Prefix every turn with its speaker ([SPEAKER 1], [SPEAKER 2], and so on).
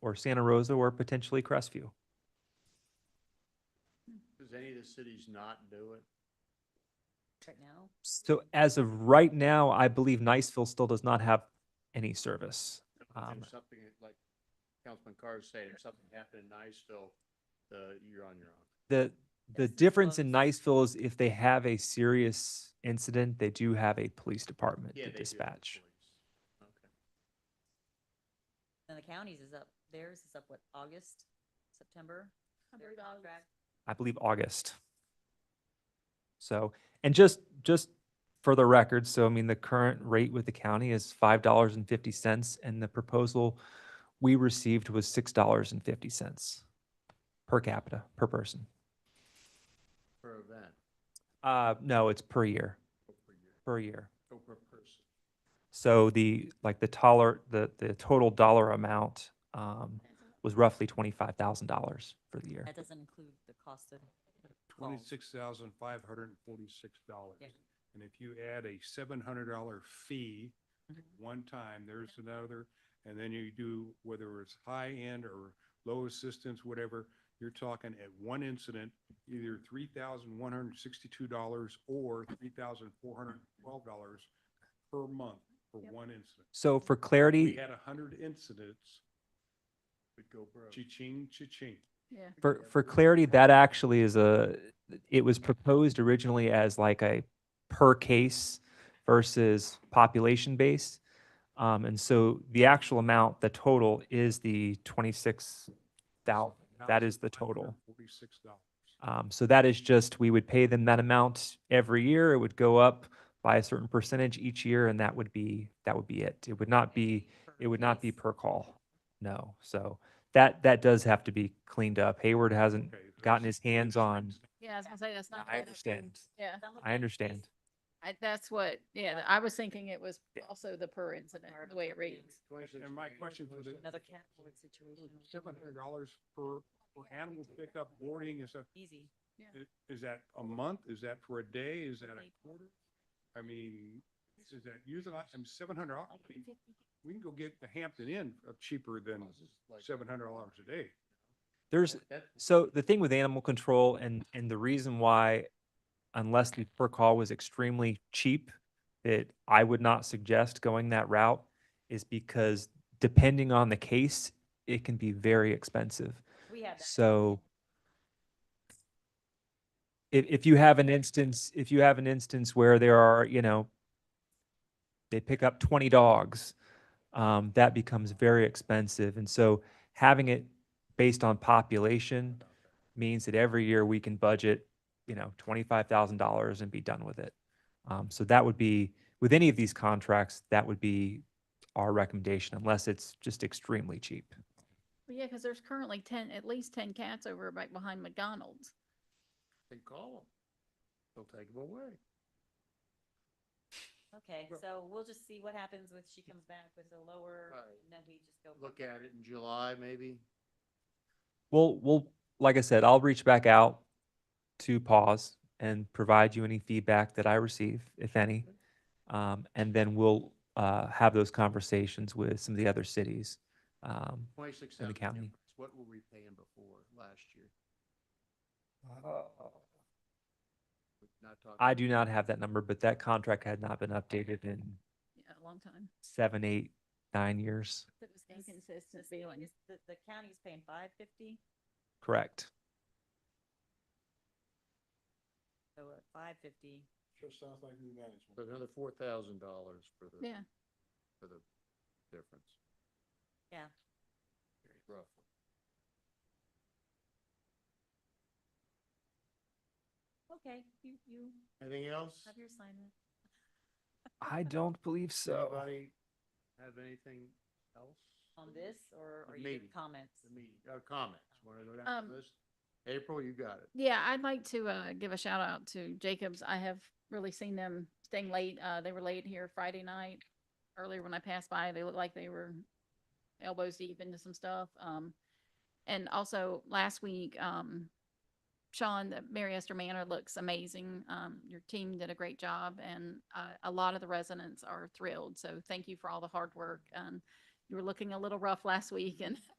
[SPEAKER 1] or Santa Rosa or potentially Crestview.
[SPEAKER 2] Does any of the cities not do it?
[SPEAKER 3] Right now?
[SPEAKER 1] So as of right now, I believe Niceville still does not have any service. Um,
[SPEAKER 2] If something, like Councilman Carr is saying, if something happened in Niceville, uh, you're on your own.
[SPEAKER 1] The, the
[SPEAKER 3] Yes, it's
[SPEAKER 1] difference in
[SPEAKER 3] close.
[SPEAKER 1] Niceville is if they have a serious incident, they do have a police department
[SPEAKER 2] Yeah,
[SPEAKER 1] to
[SPEAKER 2] they do have
[SPEAKER 1] dispatch.
[SPEAKER 2] police. Okay.
[SPEAKER 3] And the counties is up, theirs is up, what, August, September? Their contract?
[SPEAKER 1] I believe August. So, and just, just for the record, so I mean, the current rate with the county is five dollars and fifty cents and the proposal we received was six dollars and fifty cents per capita, per person.
[SPEAKER 2] Per event,
[SPEAKER 1] Uh, no, it's per year,
[SPEAKER 2] or per year,
[SPEAKER 1] per year.
[SPEAKER 2] or per person.
[SPEAKER 1] So the, like the taller, the, the total dollar amount, um, was roughly twenty-five thousand dollars for the year.
[SPEAKER 3] That doesn't include the cost of. calls.
[SPEAKER 4] twenty-six thousand five hundred and forty-six dollars.
[SPEAKER 3] Yeah.
[SPEAKER 4] And if you add a seven hundred dollar fee
[SPEAKER 3] Mhm.
[SPEAKER 4] one time, there's another, and then you do, whether it's high-end or low assistance, whatever, you're talking at one incident, either three thousand one hundred and sixty-two dollars or three thousand four hundred and twelve dollars per month for one incident.
[SPEAKER 1] So for
[SPEAKER 4] We
[SPEAKER 1] clarity,
[SPEAKER 4] had a hundred incidents,
[SPEAKER 2] Would go broke.
[SPEAKER 4] cha-ching, cha-ching.
[SPEAKER 5] Yeah.
[SPEAKER 1] for, for clarity, that actually is a, it was proposed originally as like a per case versus population base. Um, and so the actual amount, the total is the twenty-six thousand. That is the total.
[SPEAKER 4] Forty-six dollars.
[SPEAKER 1] Um, so that is just, we would pay them that amount every year. It would go up by a certain percentage each year and that would be, that would be it. It would not be, it would not be per call. No. So that, that does have to be cleaned up. Hayward hasn't
[SPEAKER 4] Okay, that's-
[SPEAKER 1] gotten his hands on.
[SPEAKER 5] Yeah, I was gonna say, that's not.
[SPEAKER 1] I
[SPEAKER 5] fair.
[SPEAKER 1] understand.
[SPEAKER 5] Yeah,
[SPEAKER 1] I understand.
[SPEAKER 5] I, that's what, yeah, I was thinking it was also the per incident,
[SPEAKER 3] Part of
[SPEAKER 5] the way it
[SPEAKER 3] what it
[SPEAKER 5] reads.
[SPEAKER 3] is.
[SPEAKER 4] And my question for the.
[SPEAKER 3] Another capital situation.
[SPEAKER 4] Seven hundred dollars per, for animal pickup, boarding is a,
[SPEAKER 3] Easy.
[SPEAKER 4] i- is that a month? Is that for a day? Is that a quarter? I mean, is that usually, I'm seven hundred, dollars. I mean, we can go get the Hampton Inn uh, cheaper than seven hundred dollars a day.
[SPEAKER 1] There's, so the thing with animal control and, and the reason why, unless the per call was extremely cheap, that I would not suggest going that route is because depending on the case, it can be very expensive.
[SPEAKER 3] We had that.
[SPEAKER 1] So if, if you have an instance, if you have an instance where there are, you know, they pick up twenty dogs, um, that becomes very expensive. And so having it based on population means that every year we can budget, you know, twenty-five thousand dollars and be done with it. Um, so that would be, with any of these contracts, that would be our recommendation unless it's just extremely cheap.
[SPEAKER 5] Well, Yeah, because there's currently ten, at least ten cats over right behind McDonald's.
[SPEAKER 2] They call them. They'll take them away.
[SPEAKER 3] Okay, so we'll just see what happens when she comes back with a lower,
[SPEAKER 2] Right.
[SPEAKER 3] and then we just go.
[SPEAKER 2] Look at it in July, maybe.
[SPEAKER 1] We'll, we'll, like I said, I'll reach back out to pause and provide you any feedback that I receive, if any. Um, and then we'll, uh, have those conversations with some of the other cities. Um,
[SPEAKER 2] Twenty-six
[SPEAKER 1] In the
[SPEAKER 2] thousand
[SPEAKER 1] county.
[SPEAKER 2] difference. What were we paying before last year? We're Not talking.
[SPEAKER 1] Uh, I do not have that number, but that contract had not been updated in
[SPEAKER 5] Yeah, a long time.
[SPEAKER 1] seven, eight, nine years.
[SPEAKER 5] It was
[SPEAKER 3] Yes,
[SPEAKER 5] inconsistent
[SPEAKER 3] This thing
[SPEAKER 5] feeling.
[SPEAKER 3] is- The, the county's paying five fifty,
[SPEAKER 1] Correct.
[SPEAKER 3] so at five fifty,
[SPEAKER 4] Sure sounds like new
[SPEAKER 2] So
[SPEAKER 4] management.
[SPEAKER 2] Another four thousand dollars for the,
[SPEAKER 5] Yeah,
[SPEAKER 2] for the difference.
[SPEAKER 3] Yeah.
[SPEAKER 2] Roughly.
[SPEAKER 3] okay, you, you
[SPEAKER 2] Anything else?
[SPEAKER 3] have your assignment.
[SPEAKER 1] I don't believe so.
[SPEAKER 2] Anybody have anything else?
[SPEAKER 3] On this, or
[SPEAKER 2] The
[SPEAKER 3] are you
[SPEAKER 2] meeting.
[SPEAKER 3] doing comments?
[SPEAKER 2] The meeting, uh, comments, wanna go down
[SPEAKER 5] Um,
[SPEAKER 2] the list? April, you got it.
[SPEAKER 5] yeah, I'd like to, uh, give a shout out to Jacobs. I have really seen them staying late. Uh, they were late here Friday night. Earlier when I passed by, they looked like they were elbows deep into some stuff. Um, and also last week, um, Sean, the Mary Esther Manor looks amazing. Um, your team did a great job and, uh, a lot of the residents are thrilled. So thank you for all the hard work. And you were looking a little rough last week and